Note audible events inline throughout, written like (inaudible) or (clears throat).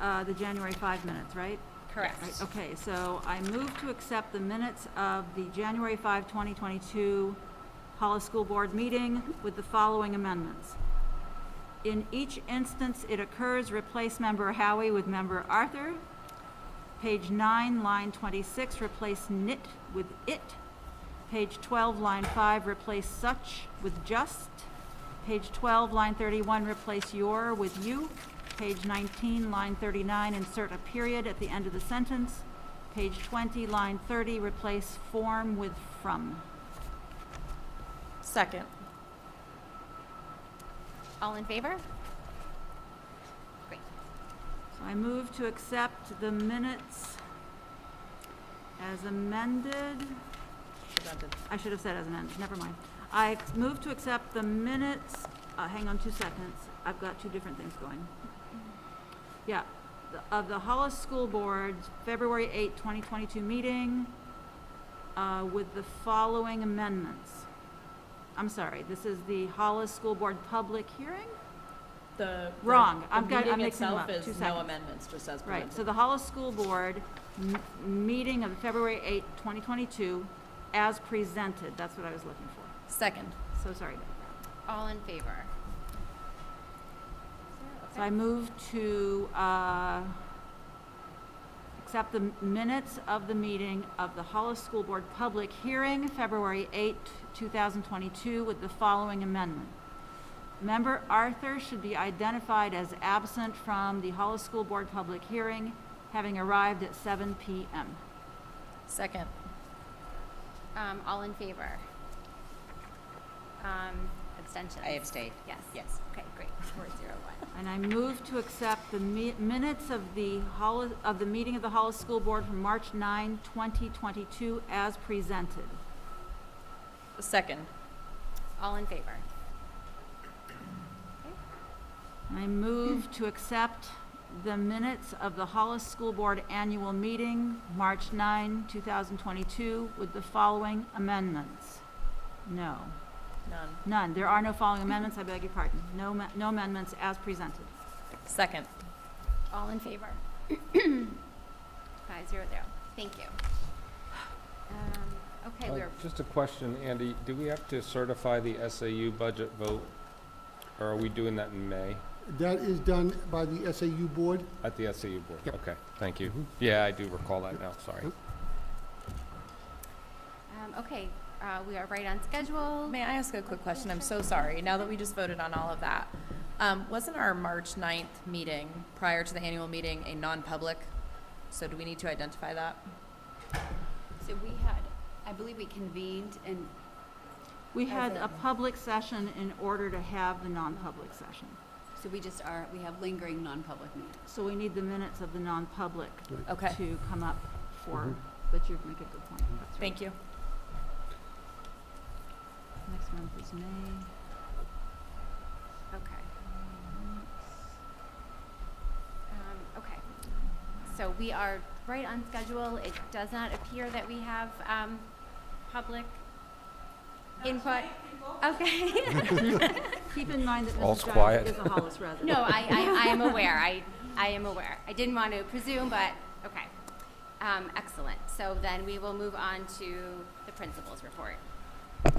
uh, the January 5 minutes, right? Right, Correct. Okay, so I move to accept the minutes of the January 5, 2022 Hollis School Board meeting with the following amendments. In each instance it occurs, replace member Howie with member Arthur. Page 9, line 26, replace knit with it. Page 12, line 5, replace such with just. Page 12, line 31, replace your with you. Page 19, line 39, insert a period at the end of the sentence. Page 20, line 30, replace form with from. Oh, Second. All in favor? Great. So I move to accept the minutes as amended. I should have said as an end, never mind. I move to accept the minutes, uh, hang on two seconds, I've got two different things going. Yeah, the- of the Hollis School Board's February 8, 2022 meeting uh, with the following amendments. I'm sorry, this is the Hollis School Board public hearing? The. the- Wrong. the I've got- I'm meeting mixing them itself up. is Two No seconds. amendments, just as Right, so presented. the Hollis School Board m- meeting of February 8, 2022, as presented, that's what I was looking for. Second. So sorry about that. All in favor? So I move to uh, accept the minutes of the meeting of the Hollis School Board Public Hearing, February 8, 2022, with the following amendment. Member Arthur should be identified as absent from the Hollis School Board Public Hearing, having arrived at 7 PM. Second. Um, all in favor? Um, abstentions? I abstained. Yes. Yes. Okay, great. Four zero one. And I move to accept the mi- minutes of the Hollis, of the meeting of the Hollis School Board from March 9, 2022, as presented. Second. All in favor? I move to accept the minutes of the Hollis School Board Annual Meeting, March 9, 2022, with the following amendments. No, None. none. There are no following amendments, I beg your pardon. No ma- no amendments as presented. Second. All in favor? (clears throat) Five zero zero. Thank you. Um, okay, Uh, we're, Just a question, Andy, do we have to certify the SAU budget vote? Or are we doing that in May That is done by the SAU board. at the SAU board? Yep. Okay, thank you. Yeah, I do recall that now, sorry. Yep. um, okay, uh, we are right on schedule. May I ask a quick question? I'm so sorry. Now that we just voted on all of that, um, wasn't our March 9th meeting, prior to the annual meeting, a non-public? So do we need to identify that? So we had, I believe we convened and, We had a public session in order to have the non-public session. so we just are, we have lingering non-public meetings. So we need the minutes of the non-public Okay, to come up for, Mm-hmm. but you make a good point. That's right. thank you. Next month is May. Okay. Um, okay. So we are right on schedule. It does not appear that we have, um, public input. Okay. (laughs) Keep in mind that All's Mrs. Giles quiet. is a Hollis (laughs) resident. No, I, I, I am aware. I, I am aware. I didn't want to presume, but, okay. Um, excellent. So then we will move on to the principal's report. I-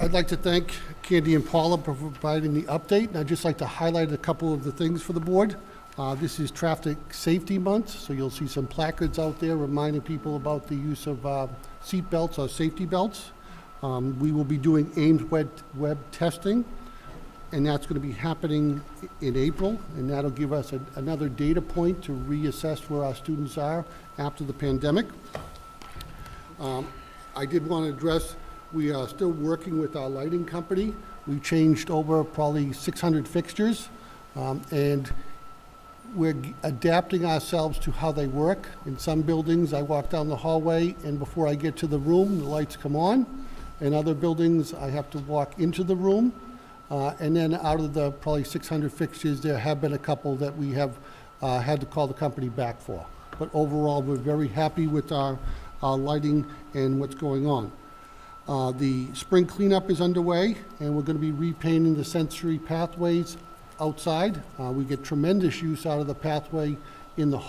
I'd like to thank Candy and Paula for providing the update, and I'd just like to highlight a couple of the things for the board. Uh, This is Traffic Safety Month, so you'll see some placards out there reminding people about the use of uh, seat belts or safety belts. Um, We will be doing Ames web, web testing, and that's going to be happening i- in April, and that'll give us a- another data point to reassess where our students are after the pandemic. I did want to address, we are still working with our lighting company. We changed over probably 600 fixtures, um, and we're g- adapting ourselves to how they work. In some buildings, I walk down the hallway, and before I get to the room, the lights come on. In other buildings, I have to walk into the room. Uh, And then out of the probably 600 fixtures, there have been a couple that we have uh, had to call the company back for. But overall, we're very happy with our our lighting and what's going on. Uh, The spring cleanup is underway, and we're going to be repainting the sensory pathways outside. Uh, We get tremendous use out of the pathway in the